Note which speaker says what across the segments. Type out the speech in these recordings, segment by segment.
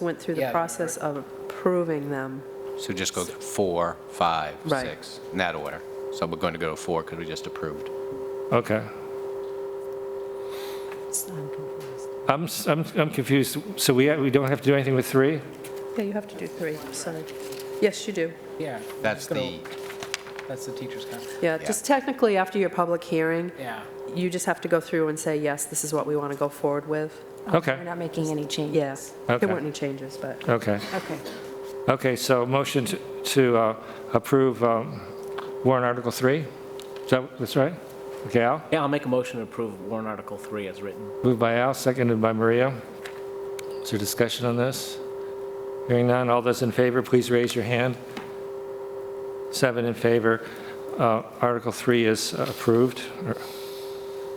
Speaker 1: went through the
Speaker 2: Yeah.
Speaker 1: process of approving them.
Speaker 3: So just go through four, five,
Speaker 1: Right.
Speaker 3: six, in that order. So we're going to go to four because we just approved.
Speaker 4: Okay. I'm, s- I'm, I'm confused. So we, we don't have to do anything with three?
Speaker 1: Yeah, you have to do three, sorry. Yes, you do.
Speaker 2: Yeah.
Speaker 3: That's
Speaker 2: Gonna-
Speaker 3: the,
Speaker 2: That's the teacher's contract.
Speaker 1: Yeah,
Speaker 3: Yeah.
Speaker 1: just technically, after your public hearing,
Speaker 2: Yeah.
Speaker 1: you just have to go through and say, yes, this is what we want to go forward with.
Speaker 4: Okay,
Speaker 5: We're not making any changes.
Speaker 1: Yes.
Speaker 4: Okay.
Speaker 1: There weren't any changes, but
Speaker 4: okay.
Speaker 5: Okay.
Speaker 4: Okay, so motion to- to uh, approve um, warrant Article 3? Is that, that's right? Okay, Al?
Speaker 2: Yeah, I'll make a motion to approve warrant article three as written.
Speaker 4: Moved by Al, seconded by Maria. Is there discussion on this? Hearing none, all those in favor, please raise your hand. Seven in favor. Uh, Article 3 is approved.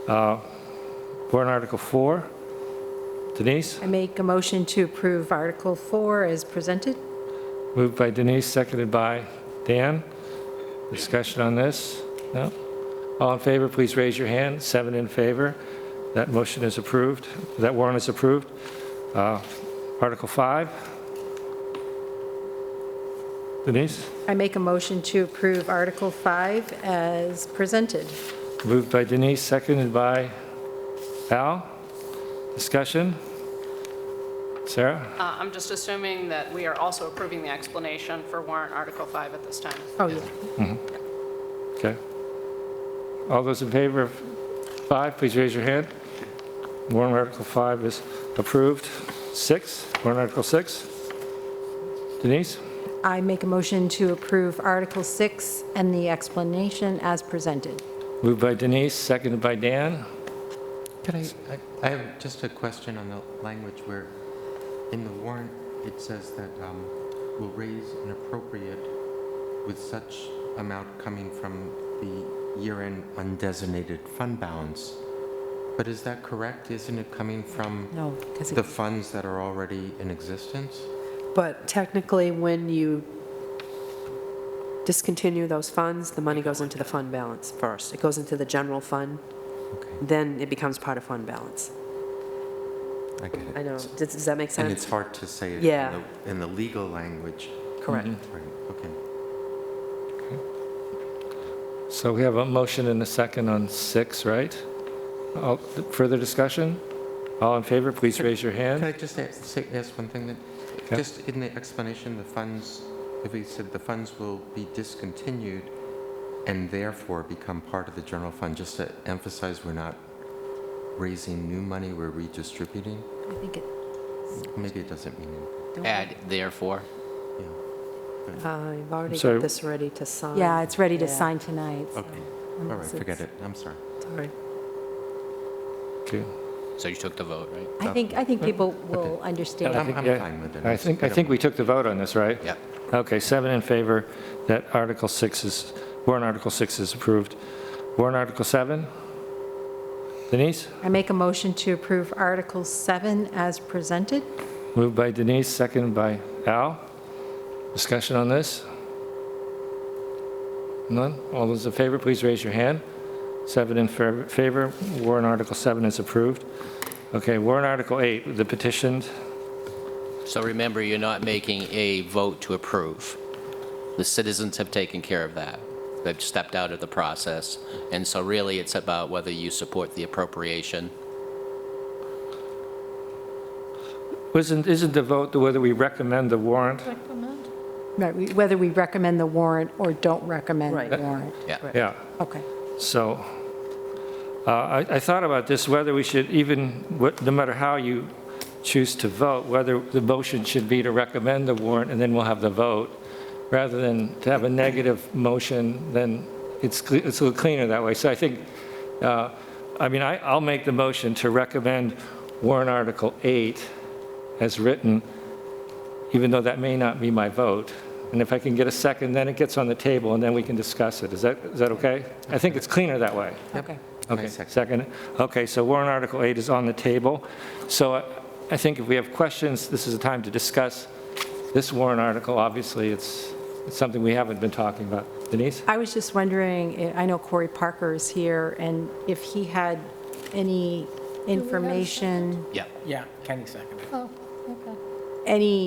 Speaker 4: Uh, Warrant Article 4. Denise?
Speaker 5: I make a motion to approve Article 4 as presented.
Speaker 4: Moved by Denise, seconded by Dan. Discussion on this? No? All in favor, please raise your hand. Seven in favor. That motion is approved. That warrant is approved. Uh, Article 5. Denise?
Speaker 5: I make a motion to approve Article 5 as presented.
Speaker 4: Moved by Denise, seconded by Al. Discussion? Sarah?
Speaker 6: Uh, I'm just assuming that we are also approving the explanation for warrant Article 5 at this time.
Speaker 5: Oh, yeah.
Speaker 4: Okay. All those in favor of 5, please raise your hand. Warrant Article 5 is approved. 6, warrant Article 6. Denise,
Speaker 5: I make a motion to approve Article 6 and the explanation as presented.
Speaker 4: moved by Denise, seconded by Dan.
Speaker 7: Could I, I- I have just a question on the language where in the warrant, it says that um, will raise an appropriate with such amount coming from the year-end undesignated fund balance. But is that correct? Isn't it coming from
Speaker 5: No, because
Speaker 7: the funds that are already in existence?
Speaker 1: but technically, when you discontinue those funds, the money goes into the fund balance first. It goes into the general fund,
Speaker 7: Okay,
Speaker 1: then it becomes part of fund balance.
Speaker 7: I get it.
Speaker 1: I know, does does that make
Speaker 7: And it's
Speaker 1: sense?
Speaker 7: hard to say it in
Speaker 1: Yeah.
Speaker 7: the- in the legal language.
Speaker 1: Correct.
Speaker 7: Right, okay.
Speaker 4: So we have a motion and a second on 6, right? All- Further discussion? All in favor, please raise your
Speaker 7: Can I
Speaker 4: hand.
Speaker 7: just ask, say, ask one thing that,
Speaker 4: Okay.
Speaker 7: just in the explanation, the funds, if we said the funds will be discontinued and therefore become part of the general fund, just to emphasize we're not raising new money, we're redistributing?
Speaker 5: I think it,
Speaker 7: Maybe it doesn't mean anything,
Speaker 3: Add therefore.
Speaker 7: yeah.
Speaker 1: I've Uh, already
Speaker 4: Sorry.
Speaker 1: got this ready to sign.
Speaker 5: yeah, it's ready to
Speaker 1: Yeah.
Speaker 5: sign tonight. so-
Speaker 7: Okay, all right, forget it, I'm sorry.
Speaker 1: Sorry.
Speaker 4: Okay.
Speaker 3: So you took the vote, right?
Speaker 5: I think, I think people will understand.
Speaker 7: I'm, I'm
Speaker 4: yeah.
Speaker 7: fine with it.
Speaker 4: I think, I think we took the vote on this, right?
Speaker 3: Yep.
Speaker 4: Okay, seven in favor, that Article 6 is, warrant Article 6 is approved. Warrant Article 7? Denise?
Speaker 5: I make a motion to approve Article 7 as presented.
Speaker 4: Moved by Denise, seconded by Al. Discussion on this? None? All those in favor, please raise your hand. Seven in fav- favor, warrant Article 7 is approved. Okay, warrant Article 8, the petitioned,
Speaker 3: So remember, you're not making a vote to approve. The citizens have taken care of that. They've stepped out of the process. And so really, it's about whether you support the appropriation.
Speaker 4: isn't, isn't the vote whether we recommend the warrant?
Speaker 5: Right, we- whether we recommend the warrant or don't recommend the
Speaker 1: Right.
Speaker 5: warrant.
Speaker 3: Yeah.
Speaker 4: Yeah.
Speaker 5: Okay.
Speaker 4: So uh, I I thought about this, whether we should even, what- no matter how you choose to vote, whether the motion should be to recommend the warrant, and then we'll have the vote, rather than to have a negative motion, then it's cle- it's a little cleaner that way. So I think, uh, I mean, I- I'll make the motion to recommend warrant Article 8 as written, even though that may not be my vote. And if I can get a second, then it gets on the table, and then we can discuss it. Is that, is that okay? I think it's cleaner that way.
Speaker 5: Okay.
Speaker 4: Okay,
Speaker 7: second.
Speaker 4: second. Okay, so warrant Article 8 is on the table. So I- I think if we have questions, this is the time to discuss this warrant article. Obviously, it's it's something we haven't been talking about. Denise?
Speaker 5: I was just wondering, eh, I I know Corey Parker is here, and if he had any information,
Speaker 3: Yeah.
Speaker 2: Yeah, Kenny seconded.
Speaker 8: Oh, okay.
Speaker 5: any